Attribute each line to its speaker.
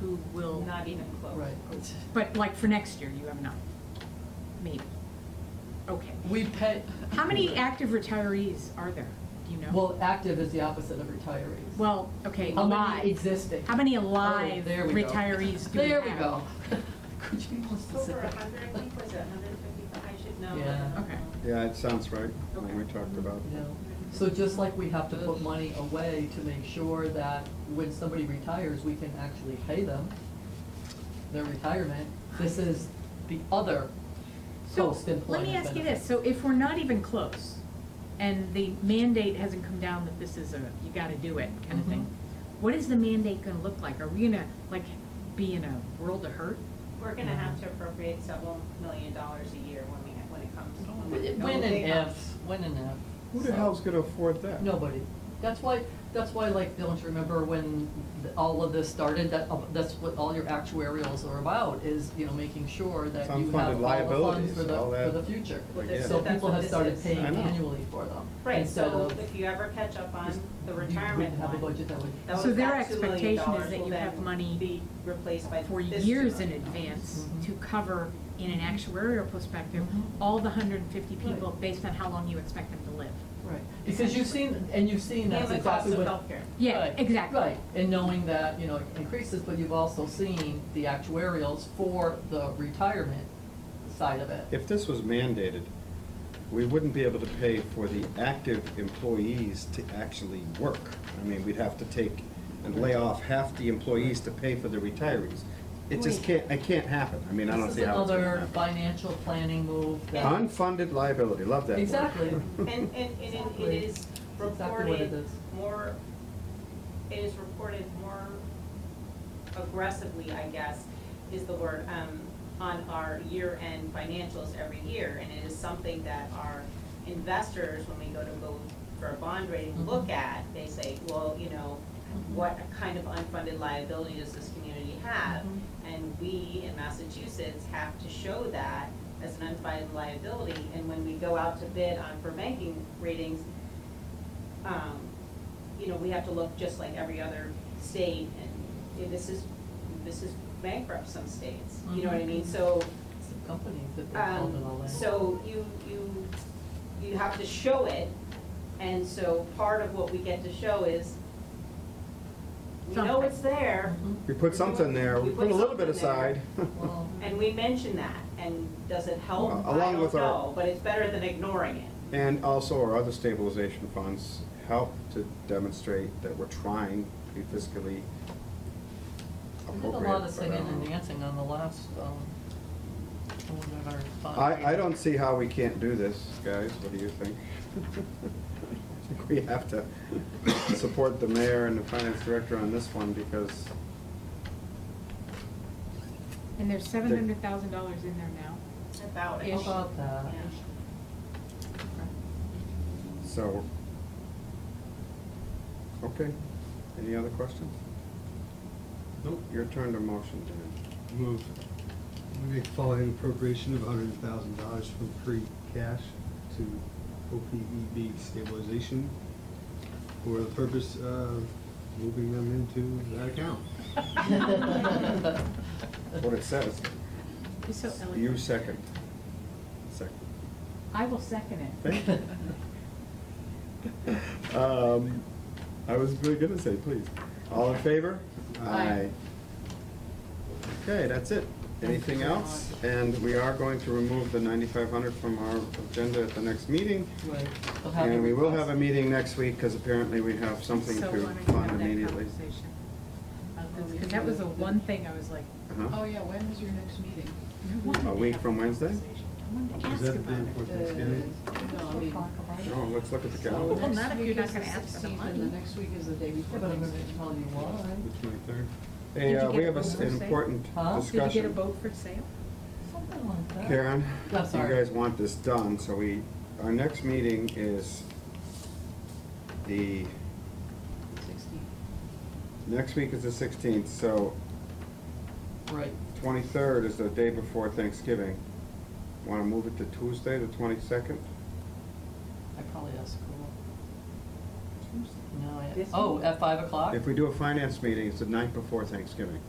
Speaker 1: who will,
Speaker 2: Not even close.
Speaker 1: right.
Speaker 3: But like for next year, you have enough, maybe. Okay.
Speaker 1: We pay.
Speaker 3: How many active retirees are there? Do you know?
Speaker 1: Well, active is the opposite of retirees.
Speaker 3: Well, okay,
Speaker 1: How many
Speaker 3: alive.
Speaker 1: existing?
Speaker 3: How many
Speaker 1: Oh,
Speaker 3: alive
Speaker 1: there we go.
Speaker 3: retirees do we
Speaker 1: There we
Speaker 3: have?
Speaker 1: go. Could you be more
Speaker 2: Over a
Speaker 1: specific?
Speaker 2: hundred, I think, was it hundred and fifty, I should know. Um,
Speaker 1: Yeah.
Speaker 3: Okay.
Speaker 4: Yeah, it sounds right, when we
Speaker 3: Okay.
Speaker 4: talked about.
Speaker 1: You know, So just like we have to put money away to make sure that when somebody retires, we can actually pay them their retirement, this is the other
Speaker 3: So, let
Speaker 1: post-employment
Speaker 3: me ask you
Speaker 1: benefit.
Speaker 3: this, so if we're not even close, and the mandate hasn't come down that this is a, you gotta do it kind
Speaker 1: Mm-hmm.
Speaker 3: of thing, what is the mandate gonna look like? Are we gonna, like, be in a world of hurt?
Speaker 2: We're gonna have to appropriate several million dollars a year when we, when it comes.
Speaker 1: When
Speaker 2: it
Speaker 1: and
Speaker 2: comes.
Speaker 1: if, when and if.
Speaker 4: Who the
Speaker 1: so.
Speaker 4: hell's gonna afford that?
Speaker 1: Nobody. That's why, that's why, like, don't you remember when th- all of this started, that, uh, that's what all your actuarials are about, is, you know, making sure that
Speaker 4: Some
Speaker 1: you have
Speaker 4: funded
Speaker 1: all the funds
Speaker 4: liabilities,
Speaker 1: for the,
Speaker 4: all
Speaker 1: for
Speaker 4: that,
Speaker 1: the future.
Speaker 2: Well,
Speaker 4: this-
Speaker 1: So
Speaker 2: that's
Speaker 1: people
Speaker 2: what
Speaker 1: have
Speaker 2: this
Speaker 1: started
Speaker 2: is.
Speaker 1: paying
Speaker 4: I know.
Speaker 1: annually for them.
Speaker 2: Right,
Speaker 1: instead
Speaker 2: so
Speaker 1: of-
Speaker 2: if you ever catch up on the
Speaker 1: You
Speaker 2: retirement
Speaker 1: wouldn't have a budget
Speaker 2: one,
Speaker 1: that would.
Speaker 2: those,
Speaker 3: So their
Speaker 2: that two million
Speaker 3: expectation is
Speaker 2: dollars
Speaker 3: that
Speaker 2: will
Speaker 3: you have
Speaker 2: then
Speaker 3: money
Speaker 2: be replaced by
Speaker 3: for
Speaker 2: this
Speaker 3: years
Speaker 2: two
Speaker 3: in
Speaker 2: million dollars.
Speaker 3: advance
Speaker 4: Mm-hmm.
Speaker 1: Mhm.
Speaker 3: to cover, in an actuarial perspective,
Speaker 1: Mhm.
Speaker 3: all the hundred and fifty people
Speaker 1: Right.
Speaker 3: based on how long you expect them to live.
Speaker 1: Right, because you've seen, and you've seen that's
Speaker 2: And the cost
Speaker 1: exactly
Speaker 2: of
Speaker 1: what.
Speaker 2: healthcare.
Speaker 3: Yeah,
Speaker 1: Right,
Speaker 3: exactly.
Speaker 1: Right, and knowing that, you know, it increases, but you've also seen the actuarials for the retirement side of it.
Speaker 4: If this was mandated, we wouldn't be able to pay for the active employees to actually work. I mean, we'd have to take and lay off half the employees to pay for the retirees. It just
Speaker 3: Wait.
Speaker 4: can't, it can't happen. I mean, I don't see how it's
Speaker 1: This is
Speaker 4: gonna
Speaker 1: another
Speaker 4: happen.
Speaker 1: financial planning move that.
Speaker 4: Unfunded liability, love that word.
Speaker 1: Exactly.
Speaker 2: And, and, and it-
Speaker 1: Exactly.
Speaker 2: it is
Speaker 1: That's exactly what it
Speaker 2: reported
Speaker 1: is.
Speaker 2: more, it is reported more aggressively, I guess, is the word, um, on our year-end financials every year. And it is something that our investors, when we go to go for a bond
Speaker 1: Mm-hmm.
Speaker 2: rating, look at, they say, well, you know, what kind of unfunded liability does this community have?
Speaker 1: Um,
Speaker 2: And we in Massachusetts have to show that as an unfunded liability. And when we go out to bid on for banking ratings, um, you know, we have to look just like every other state, and you know, this is, this is bankrupt some states, you know what I mean? So,
Speaker 1: It's the companies that Mm-hmm. they hold it all
Speaker 2: um,
Speaker 1: in.
Speaker 2: so you, you, you have to show it, and so part of what we get to show is, we know
Speaker 3: Something.
Speaker 2: it's there,
Speaker 4: We put something there, we
Speaker 2: We
Speaker 4: put a
Speaker 2: put
Speaker 4: little bit
Speaker 2: something there.
Speaker 4: aside.
Speaker 1: Mm-hmm. Well,
Speaker 2: and we mention that, and does it help?
Speaker 4: Well,
Speaker 2: I
Speaker 4: along
Speaker 2: don't
Speaker 4: with our-
Speaker 2: know, But it's better than ignoring it.
Speaker 4: And also our other stabilization funds help to demonstrate that we're trying to be fiscally
Speaker 1: we
Speaker 4: appropriate.
Speaker 1: did a lot of
Speaker 4: but I
Speaker 1: singing
Speaker 4: don't
Speaker 1: and
Speaker 4: know.
Speaker 1: dancing on the last, um, one of our. bond
Speaker 4: I, I
Speaker 1: meetings.
Speaker 4: don't see how we can't do this, guys, what do you think? I think We have to support the mayor and the finance director on this one because
Speaker 3: And there's seven hundred thousand dollars in there now.
Speaker 2: About
Speaker 1: How
Speaker 2: it.
Speaker 1: about that?
Speaker 2: Yeah.
Speaker 4: So, okay, any other questions?
Speaker 5: Nope.
Speaker 4: Your turn to motion, Dan.
Speaker 5: Move, we make following appropriation of hundred thousand dollars from free cash to OPEB stabilization for the purpose of moving them into that account.
Speaker 4: What it says,
Speaker 3: You're so eloquent.
Speaker 4: you second. Second.
Speaker 3: I will second it.
Speaker 4: Thank you. Um, I was really gonna say, please. All in favor?
Speaker 1: Aye.
Speaker 4: Okay, that's it. Anything else? And we are going to remove the ninety-five hundred from our agenda at the next meeting.
Speaker 1: Right, we'll have the
Speaker 4: And we will have a
Speaker 1: request.
Speaker 4: meeting next week, because apparently we have something
Speaker 3: So
Speaker 4: to
Speaker 3: why don't you have
Speaker 4: fund
Speaker 3: that
Speaker 4: immediately.
Speaker 3: conversation? Oh,
Speaker 6: Of the
Speaker 3: Because that was the
Speaker 6: week.
Speaker 3: one thing I was like,
Speaker 4: Uh-huh.
Speaker 6: Oh, yeah, when is your next meeting?
Speaker 3: I wanted
Speaker 4: A
Speaker 3: to
Speaker 4: week
Speaker 3: have
Speaker 4: from
Speaker 3: that
Speaker 4: Wednesday?
Speaker 3: conversation. I wanted to
Speaker 5: Is
Speaker 3: ask
Speaker 5: that the
Speaker 3: about
Speaker 5: day
Speaker 3: it.
Speaker 5: before
Speaker 6: Uh,
Speaker 5: Thanksgiving?
Speaker 6: No, I mean.
Speaker 4: Oh, let's look at the
Speaker 6: so
Speaker 4: calendar.
Speaker 3: Well, not
Speaker 6: next
Speaker 3: if you're
Speaker 6: week
Speaker 3: not
Speaker 6: is
Speaker 3: gonna
Speaker 6: the
Speaker 3: ask for the
Speaker 6: 16th,
Speaker 3: money.
Speaker 6: And the next week is the day before
Speaker 1: But I'm gonna
Speaker 6: Thanksgiving.
Speaker 1: tell you why.
Speaker 5: The twenty-third?
Speaker 4: Hey,
Speaker 3: Did you
Speaker 4: uh,
Speaker 3: get
Speaker 4: we
Speaker 3: a
Speaker 4: have a
Speaker 3: vote
Speaker 4: s-
Speaker 3: for
Speaker 4: an
Speaker 3: sale?
Speaker 4: important
Speaker 1: Huh? Did
Speaker 3: Did you get a
Speaker 4: discussion.
Speaker 3: boat for sale?
Speaker 1: Something like that.
Speaker 4: Karen,
Speaker 1: I'm
Speaker 4: if you
Speaker 1: sorry.
Speaker 4: guys want this done, so we, our next meeting is the,
Speaker 6: Sixteen.
Speaker 4: next week is the sixteenth, so
Speaker 1: Right,
Speaker 4: twenty-third is the day before Thanksgiving. Wanna move it to Tuesday, the twenty-second?
Speaker 1: I probably asked Cool. No, I, oh, at five o'clock?
Speaker 4: If we do a finance meeting, it's the night before Thanksgiving.